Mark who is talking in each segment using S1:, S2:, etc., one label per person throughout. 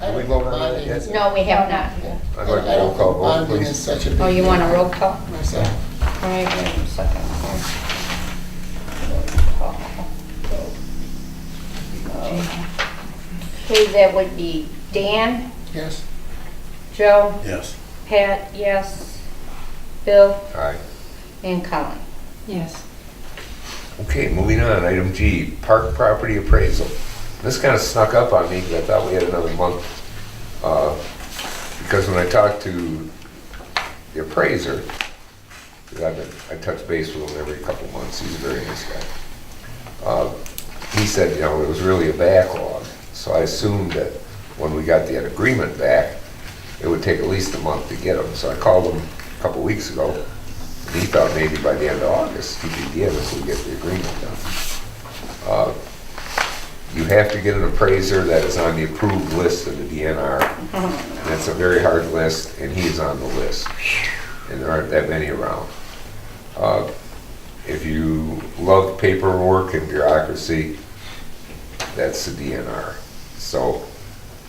S1: I
S2: Did we
S1: don't think
S2: vote on that
S1: bonding
S2: yet?
S1: is-
S3: No, we have not.
S2: I'd like a roll call vote,
S1: I don't think bonding
S2: please.
S1: is such a big.
S3: Oh, you want a roll call?
S1: deal Myself.
S3: All right, wait a second here. Roll call. Okay, that would be Dan,
S1: Yes,
S3: Joe,
S4: Yes.
S3: Pat, yes, Bill,
S2: All right.
S3: and Colin.
S5: Yes.
S2: Okay, moving on, item G, park property appraisal. This kind of snuck up on me, because I thought we had another month. uh, Because when I talked to the appraiser, 'cause I've been, I touch base with him every couple months, he's a very nice guy. Uh, He said, you know, it was really a backlog, so I assumed that when we got that agreement back, it would take at least a month to get them, so I called him a couple weeks ago, and he thought maybe by the end of August, he could give us, we'd get the agreement done. Uh, You have to get an appraiser that is on the approved list of the DNR. That's a very hard list, and he is on the list. And there aren't that many around. Uh, If you love paperwork and bureaucracy, that's the DNR. So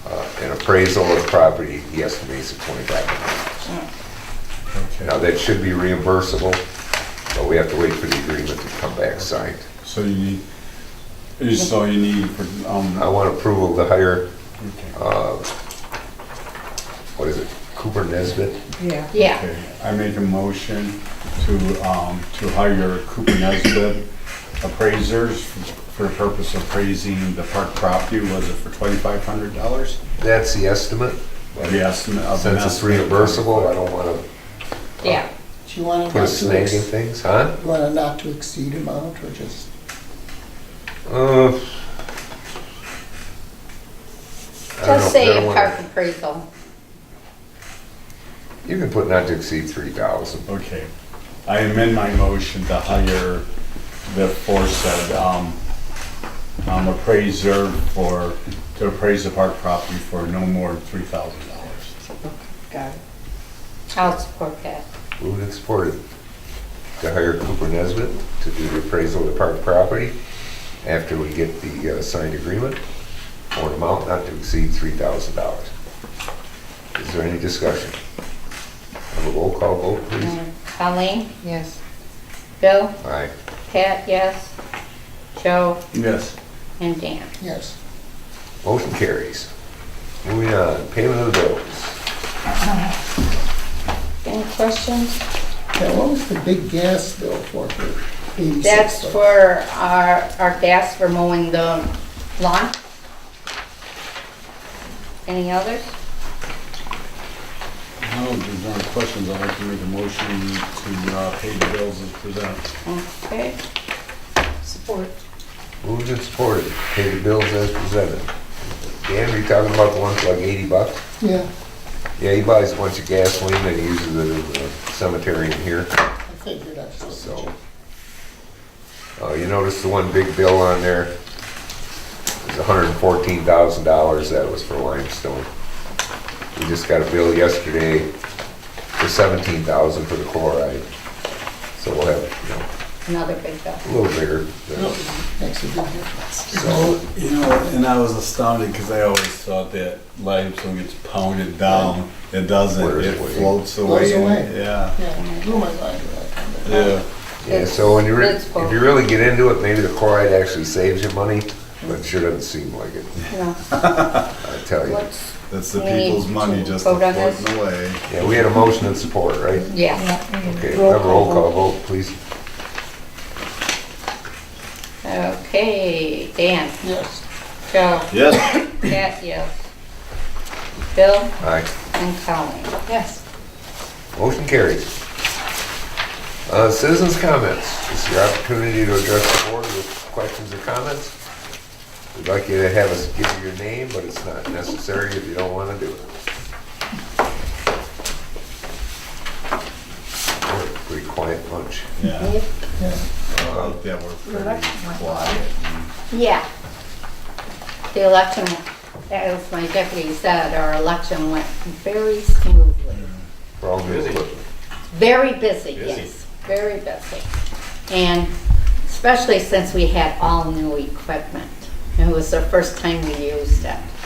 S2: uh, an appraisal of property, he estimates at twenty-five million. Now,
S4: Okay.
S2: that should be reimbursable, but we have to wait for the agreement to come back signed.
S4: So you need, you so you need, for,
S2: I
S4: um,
S2: want approval to hire,
S4: okay,
S2: uh, what is it, Cooper Nesbit?
S5: Yeah.
S3: Yeah,
S4: okay. I make a motion to, um, to hire Cooper Nesbit appraisers for the purpose of appraising the park property, was it for twenty-five hundred dollars?
S2: That's the estimate.
S4: The estimate of the.
S2: Since it's reimbursable, I don't want
S3: yeah.
S1: do you want
S2: to
S1: it
S2: put a
S1: not to,
S2: snag in
S1: ex-
S2: things, huh?
S1: you want it not to exceed amount or just,
S2: Uh, Uh, I don't know,
S3: Just say
S2: I don't
S3: a
S2: wanna-
S3: park appraisal.
S2: You can put not to exceed three thousand.
S4: Okay, I amend my motion to hire the aforesaid, um, um, appraiser for, to appraise the park property for no more than three thousand dollars.
S5: Got it.
S3: I'll support that.
S2: Moved and supported to hire Cooper Nesbit to do the appraisal of the park property after we get the uh, signed agreement for an amount not to exceed three thousand dollars. Is there any discussion? Have a roll call vote, please.
S3: And Colleen,
S5: Yes.
S3: Bill,
S2: Aye.
S3: Pat, yes, Joe,
S4: Yes.
S3: and Dan.
S1: yes.
S2: Motion carries. Moving on, payment of the bills.
S3: Any questions?
S1: Now, what was the big gas bill for, for eighty-six?
S3: That's
S1: bucks?
S3: for our, our gas for mowing the lawn. Any others?
S4: No, there's no questions, I'd like to make a motion to, uh, pay the bills as presented.
S3: Okay,
S5: Support.
S2: Moved and supported, pay the bills as presented. Dan, are you talking about the ones like eighty bucks?
S1: Yeah,
S2: Yeah, he buys a bunch of gasoline and he uses it in the cemetery in here,
S1: I figured I should.
S2: so. Uh, you notice the one big bill on there? It's hundred and fourteen thousand dollars, that was for limestone. We just got a bill yesterday for seventeen thousand for the chloride. So we'll have,
S3: another big bill.
S2: you know, a little bigger. than-
S1: Makes a big difference.
S4: So, you know, and I was astounded because I always thought that limestone gets pounded down. It doesn't,
S2: Floats
S4: it
S2: away.
S4: floats
S1: Floats
S4: away. and-
S1: away.
S4: Yeah,
S1: Yeah, blew my mind with that comment.
S4: yeah.
S2: Yeah, so when you, re-
S3: It's
S2: if
S3: full.
S2: you really get into it, maybe the chloride actually saves you money, but it sure doesn't seem like it,
S3: No,
S2: I tell you.
S3: let's-
S4: That's the
S3: We need
S4: people's money
S3: to
S4: just
S3: vote on this.
S4: floating away.
S2: Yeah, we had a motion and support, right?
S3: Yeah,
S2: Okay, have a roll call vote, please.
S3: okay, Dan,
S1: Yes,
S3: Joe,
S4: Yes.
S3: Pat, yes, Bill,
S2: Aye.
S3: and Colleen.
S5: Yes.
S2: Motion carries. Uh, Citizens' comments. This is your opportunity to address the board with questions or comments. We'd like you to have us give you your name, but it's not necessary if you don't want to do it. Pretty quiet bunch.
S4: Yeah,
S1: yeah.
S4: I like that word, pretty quiet.
S3: Yeah. The election, as my deputy said, our election went very smoothly.
S2: We're all good.
S3: Very busy,
S4: Busy.
S3: yes, very busy. And especially since we had all new equipment. It was the first time we used it.